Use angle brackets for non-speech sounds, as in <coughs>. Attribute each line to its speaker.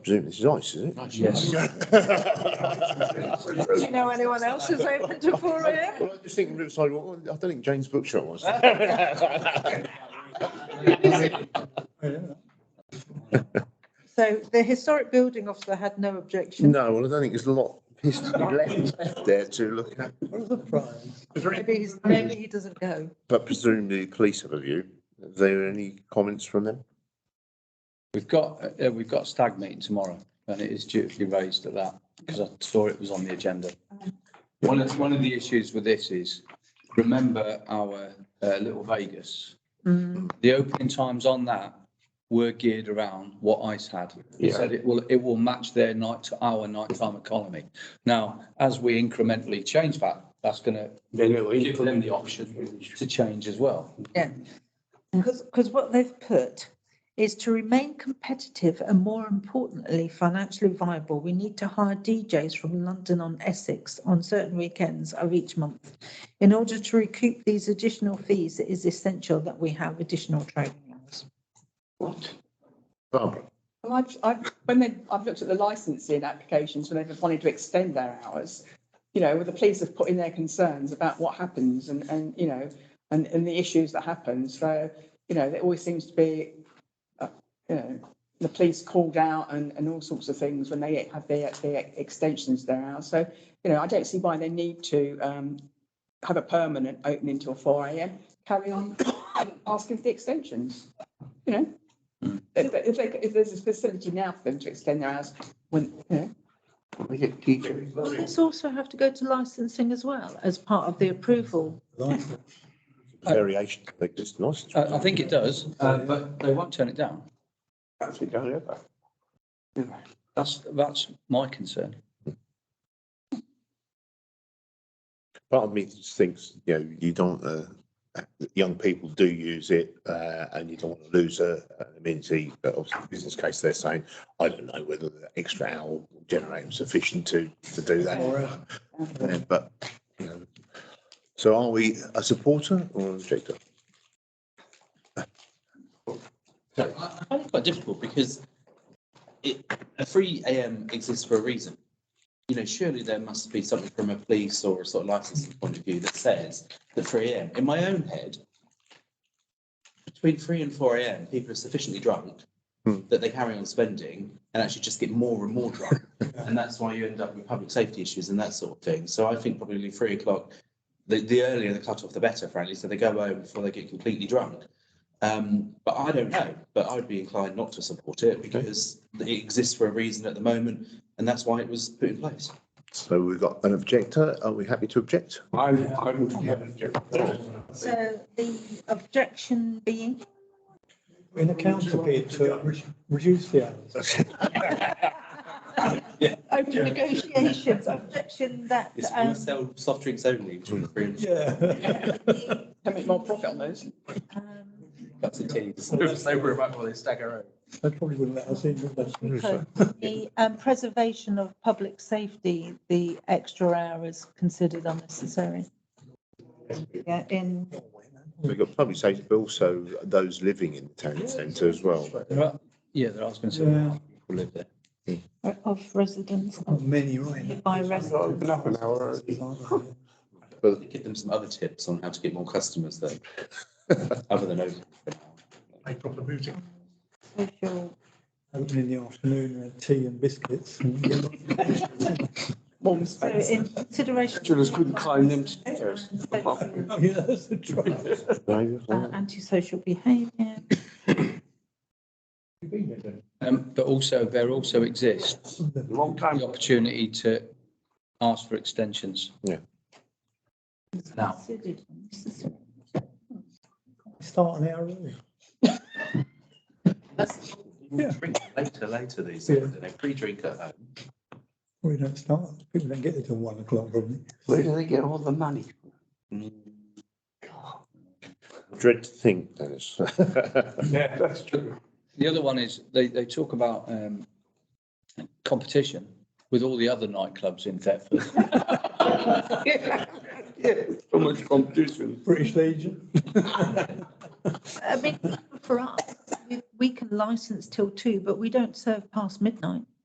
Speaker 1: Presumably this is ice, is it?
Speaker 2: Yes.
Speaker 3: Do you know anyone else who's open to four AM?
Speaker 1: <laughs> Well, I just think Riverside, well, I don't think Jane's Bookshop was.
Speaker 3: <laughs> So the historic building officer had no objection.
Speaker 1: No, well, I don't think there's a lot of history <laughs> left there to look at,
Speaker 3: Maybe he's, maybe he doesn't go.
Speaker 1: but presumably the police have a view. Are there any comments from them?
Speaker 2: We've got, uh, uh, we've got a stag meeting tomorrow and it is dutifully raised at that because I saw it was on the agenda. One of, one of the issues with this is, remember our uh, Little Vegas? The opening times on that were geared around what ICE had. It
Speaker 1: Yeah.
Speaker 2: said it will, it will match their night to our nighttime economy. Now, as we incrementally change that, that's going to give them the option to change as well.
Speaker 3: Yeah. Because, what they've put is to remain competitive and more importantly, financially viable, we need to hire DJs from London on Essex on certain weekends of each month. In order to recoup these additional fees, it is essential that we have additional training hours.
Speaker 1: Barbara?
Speaker 4: Well, I've, I've, when they, I've looked at the licensing applications, when they've wanted to extend their hours, you know, the police have put in their concerns about what happens and, and, you know, and, and the issues that happen. So, you know, there always seems to be, uh, you know, the police called out and, and all sorts of things when they have their, their extensions to their hours. So, you know, I don't see why they need to, um, have a permanent opening till four AM, carry on <coughs> asking for the extensions, you know? If, if, they- if there's a facility now for them to extend their hours, when, you know,
Speaker 1: We get teachers.
Speaker 3: Police also have to go to licensing as well as part of the approval.
Speaker 1: Variation of existing license.
Speaker 2: I, I think it does, uh, but they won't turn it down.
Speaker 1: Actually, don't ever.
Speaker 2: That's, that's my concern.
Speaker 1: part of me just thinks, you know, you don't, uh, young people do use it, uh, and you don't want to lose a, an amenity, but obviously in the business case, they're saying, I don't know whether the extra hour will generate sufficient to, to do that. Yeah, But, you know, so are we a supporter or an objector?
Speaker 5: I find it quite difficult because it, a three AM exists for a reason. You know, surely there must be something from a police or a sort of licensing point of view that says that three AM, in my own head, between three and four AM, people are sufficiently drunk
Speaker 1: Hmm.
Speaker 5: that they carry on spending and actually just get more and more drunk. And that's why you end up with public safety issues and that sort of thing. So I think probably three o'clock, the, the earlier the cut off, the better, frankly, so they go home before they get completely drunk. Um, but I don't know, but I would be inclined not to support it because it exists for a reason at the moment and that's why it was put in place.
Speaker 1: So we've got an objector, are we happy to object?
Speaker 3: So the objection being,
Speaker 6: In a counter bid to re- reduce the hours.
Speaker 3: open negotiations, objection that,
Speaker 5: It's we
Speaker 3: um,
Speaker 5: sell soft drinks only between
Speaker 6: Hmm.
Speaker 5: three and
Speaker 6: <laughs> Yeah.
Speaker 4: can make more profit on those.
Speaker 3: um,
Speaker 5: cups of tea. So we're about while they stagger out.
Speaker 6: They probably wouldn't let us in, would they?
Speaker 3: So The um, preservation of public safety, the extra hour is considered unnecessary. Yeah, in,
Speaker 1: We've got public safety, but also those living in the town centre as well.
Speaker 2: There are, yeah, there are concerns.
Speaker 6: Yeah.
Speaker 2: People live there.
Speaker 3: of residents,
Speaker 6: Not many, right?
Speaker 3: by residents.
Speaker 5: Give them some other tips on how to get more customers
Speaker 6: <laughs>
Speaker 5: though, other than open.
Speaker 3: social-
Speaker 6: Open in the afternoon, with tea and biscuits. <laughs>
Speaker 4: Warm
Speaker 3: So
Speaker 4: space.
Speaker 3: in consideration.
Speaker 7: couldn't climb them stairs.
Speaker 6: Oh, yeah, that's the trouble.
Speaker 3: Uh, Antisocial behaviour,
Speaker 2: Um, but also, there also exists
Speaker 7: Long time.
Speaker 2: the opportunity to ask for extensions.
Speaker 1: Yeah.
Speaker 2: Now,
Speaker 3: considered unnecessary.
Speaker 6: Start an hour early. Yeah.
Speaker 5: Drink later, later these,
Speaker 6: Yeah.
Speaker 5: days, and they pre-drink at home.
Speaker 6: We don't start. People don't get there till one o'clock, probably.
Speaker 7: Where do they get all the money?
Speaker 1: Dread to think, Dennis. <laughs>
Speaker 7: Yeah, that's true.
Speaker 2: the other one is, they, they talk about, um, competition with all the other nightclubs in Thetford.
Speaker 7: Yeah, so much competition.
Speaker 6: British Legion.
Speaker 3: I mean, for us, we can license till two, but we don't serve past midnight.